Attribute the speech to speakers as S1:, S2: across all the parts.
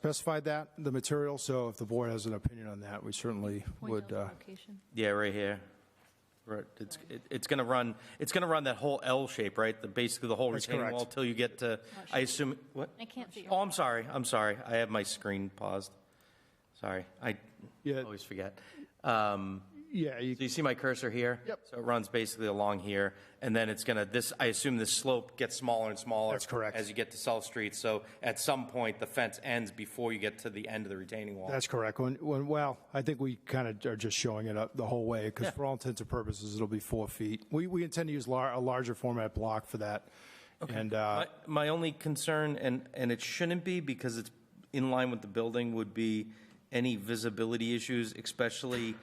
S1: specified that, the material, so if the board has an opinion on that, we certainly would, uh,
S2: Yeah, right here. Right, it's, it- it's gonna run, it's gonna run that whole L shape, right? The, basically the whole
S1: That's
S2: retaining
S1: correct.
S2: wall till you get to, I assume, what?
S3: I can't see your-
S2: Oh, I'm sorry, I'm sorry. I have my screen paused. Sorry, I
S1: Yeah.
S2: always forget. Um,
S1: yeah, you-
S2: so you see my cursor here?
S1: Yep.
S2: So it runs basically along here, and then it's gonna, this, I assume this slope gets smaller and smaller.
S1: That's correct.
S2: As you get to South Street, so at some point, the fence ends before you get to the end of the retaining wall.
S1: that's correct. When, when, well, I think we kind of are just showing it up the whole way, because for all intents and purposes, it'll be four feet. We, we intend to use lar, a larger format block for that, and, uh,
S2: My, my only concern, and, and it shouldn't be because it's in line with the building, would be any visibility issues, especially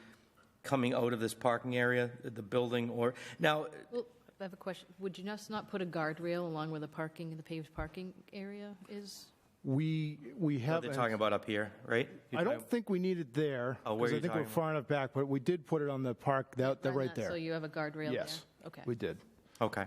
S2: coming out of this parking area, the building or, now,
S3: Well, I have a question. Would you just not put a guardrail along where the parking, the paved parking area is?
S1: we, we have.
S2: they're talking about up here, right?
S1: I don't think we need it there,
S2: Oh, where
S1: because
S2: are
S1: I
S2: you
S1: think we're
S2: talking
S1: far enough back, but we did put it on the park, that, that
S3: On
S1: right
S3: that, So
S1: there.
S3: you have a guardrail there?
S1: Yes.
S3: Okay.
S1: We did.
S2: Okay.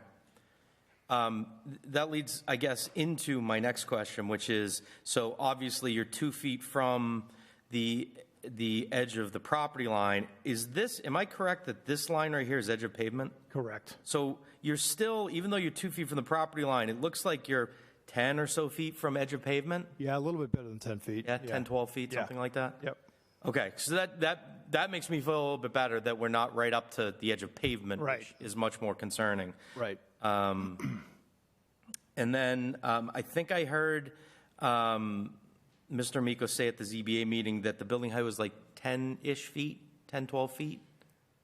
S2: Um, th- That leads, I guess, into my next question, which is, so obviously you're two feet from the, the edge of the property line. Is this, am I correct that this line right here is edge of pavement?
S1: Correct.
S2: So you're still, even though you're two feet from the property line, it looks like you're 10 or so feet from edge of pavement?
S1: Yeah, a little bit better than 10 feet.
S2: Yeah, 10, 12 feet,
S1: Yeah.
S2: something like that?
S1: Yep.
S2: Okay, so that, that, that makes me feel a little bit better that we're not right up to the edge of pavement,
S1: Right.
S2: which is much more concerning.
S1: Right.
S2: And then um, I think I heard um, Mr. Miko say at the ZBA meeting that the building height was like 10-ish feet, 10, 12 feet?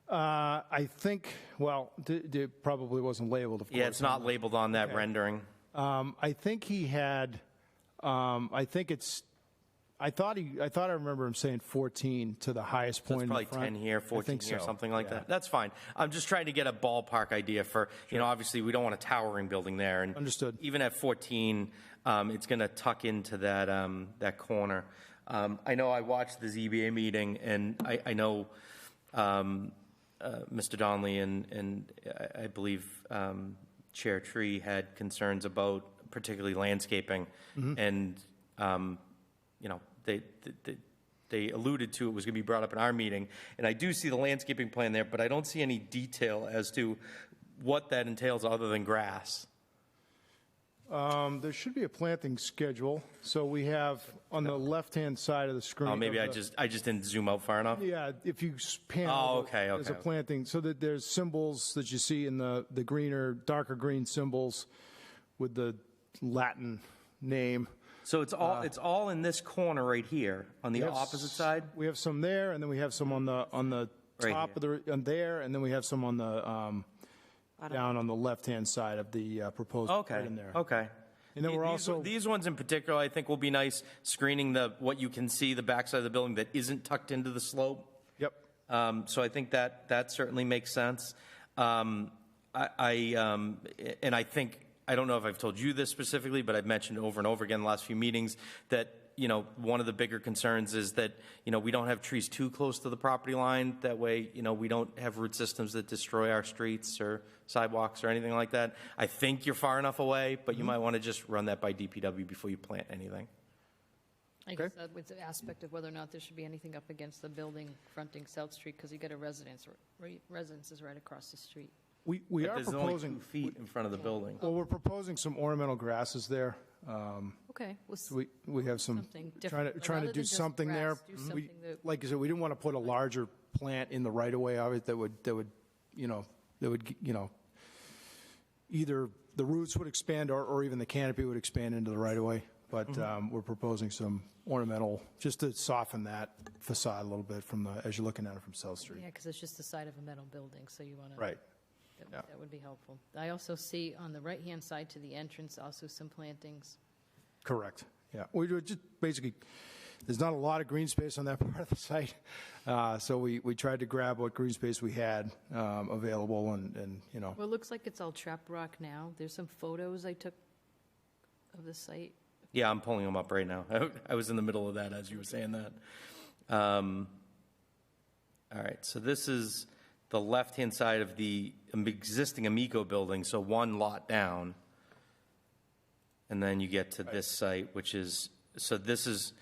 S1: Uh, I think, well, d- d- it probably wasn't labeled, of course.
S2: Yeah, it's not labeled on that rendering.
S1: Um, I think he had, um, I think it's, I thought he, I thought I remember him saying 14 to the highest point
S2: It's
S1: in the
S2: probably
S1: front.
S2: 10 here,
S1: I
S2: 14
S1: think
S2: here,
S1: so.
S2: something like
S1: Yeah.
S2: that. That's fine. I'm just trying to get a ballpark idea for, you know, obviously, we don't want a towering building there. and
S1: Understood.
S2: Even at 14, um, it's going to tuck into that, um, that corner. Um, I know I watched the ZBA meeting, and I, I know um, uh, Mr. Donnelly and, and I- I believe um, Chair Tree had concerns about particularly landscaping.
S1: Mm-hmm.
S2: And, um, you know, they, they, they alluded to it was going to be brought up in our meeting. And I do see the landscaping plan there, but I don't see any detail as to what that entails other than grass.
S1: Um, there should be a planting schedule. So we have on the left-hand side of the screen.
S2: Oh, maybe
S1: of
S2: I
S1: the-
S2: just, I just didn't zoom out far enough.
S1: Yeah, if you s- pan.
S2: Oh,
S1: over,
S2: okay,
S1: There's a
S2: okay.
S1: planting, so that there's symbols that you see in the, the greener, darker green symbols with the Latin name.
S2: So it's all, it's all in this corner right here, on the
S1: We have s-
S2: opposite side?
S1: We have some there, and then we have some on the, on the
S2: Right
S1: top of the, on there, and then we have some on the, um, down on the left-hand side of the uh, proposed. right
S2: Okay,
S1: in there.
S2: okay.
S1: And then we're
S2: These-
S1: also,
S2: These ones in particular, I think will be nice, screening the, what you can see, the backside of the building that isn't tucked into the slope.
S1: yep,
S2: Um, So I think that, that certainly makes sense. Um, I, I, um, and I think, I don't know if I've told you this specifically, but I've mentioned over and over again the last few meetings that, you know, one of the bigger concerns is that, you know, we don't have trees too close to the property line. That way, you know, we don't have root systems that destroy our streets or sidewalks or anything like that. I think you're far enough away, but you
S1: Mm-hmm.
S2: might want to just run that by DPW before you plant anything.
S3: I guess that was the aspect of whether or not there should be anything up against the building fronting South Street, because you got a residence, right- residence is right across the street.
S1: we, we are
S2: There's only two
S1: proposing,
S2: feet in front of the building.
S1: well, we're proposing some ornamental grasses there. Um,
S3: Okay, well, s-
S1: We, we have some,
S3: Something
S1: trying to,
S3: different,
S1: trying
S3: rather
S1: to do
S3: than just
S1: something there.
S3: grass, do
S1: We-
S3: something that-
S1: Like I said, we didn't want to put a larger plant in the right of way of it that would, that would, you know, that would, you know, either the roots would expand or, or even the canopy would expand into the right of way. But um, we're proposing some ornamental, just to soften that facade a little bit from the, as you're looking at it from South Street.
S3: yeah, because it's just the side of a metal building, so you want to.
S1: Right.
S3: That-
S1: Yeah.
S3: That would be helpful. I also see on the right-hand side to the entrance, also some plantings.
S1: Correct, yeah. We were just basically, there's not a lot of green space on that part of the site, Uh, so we, we tried to grab what green space we had um, available and, and, you know,
S3: Well, it looks like it's all trap rock now. There's some photos I took of the site.
S2: Yeah, I'm pulling them up right now. I was in the middle of that as you were saying that. Um, all right, so this is the left-hand side of the existing Amico building, so one lot down. And then you get to this site, which is, so this is,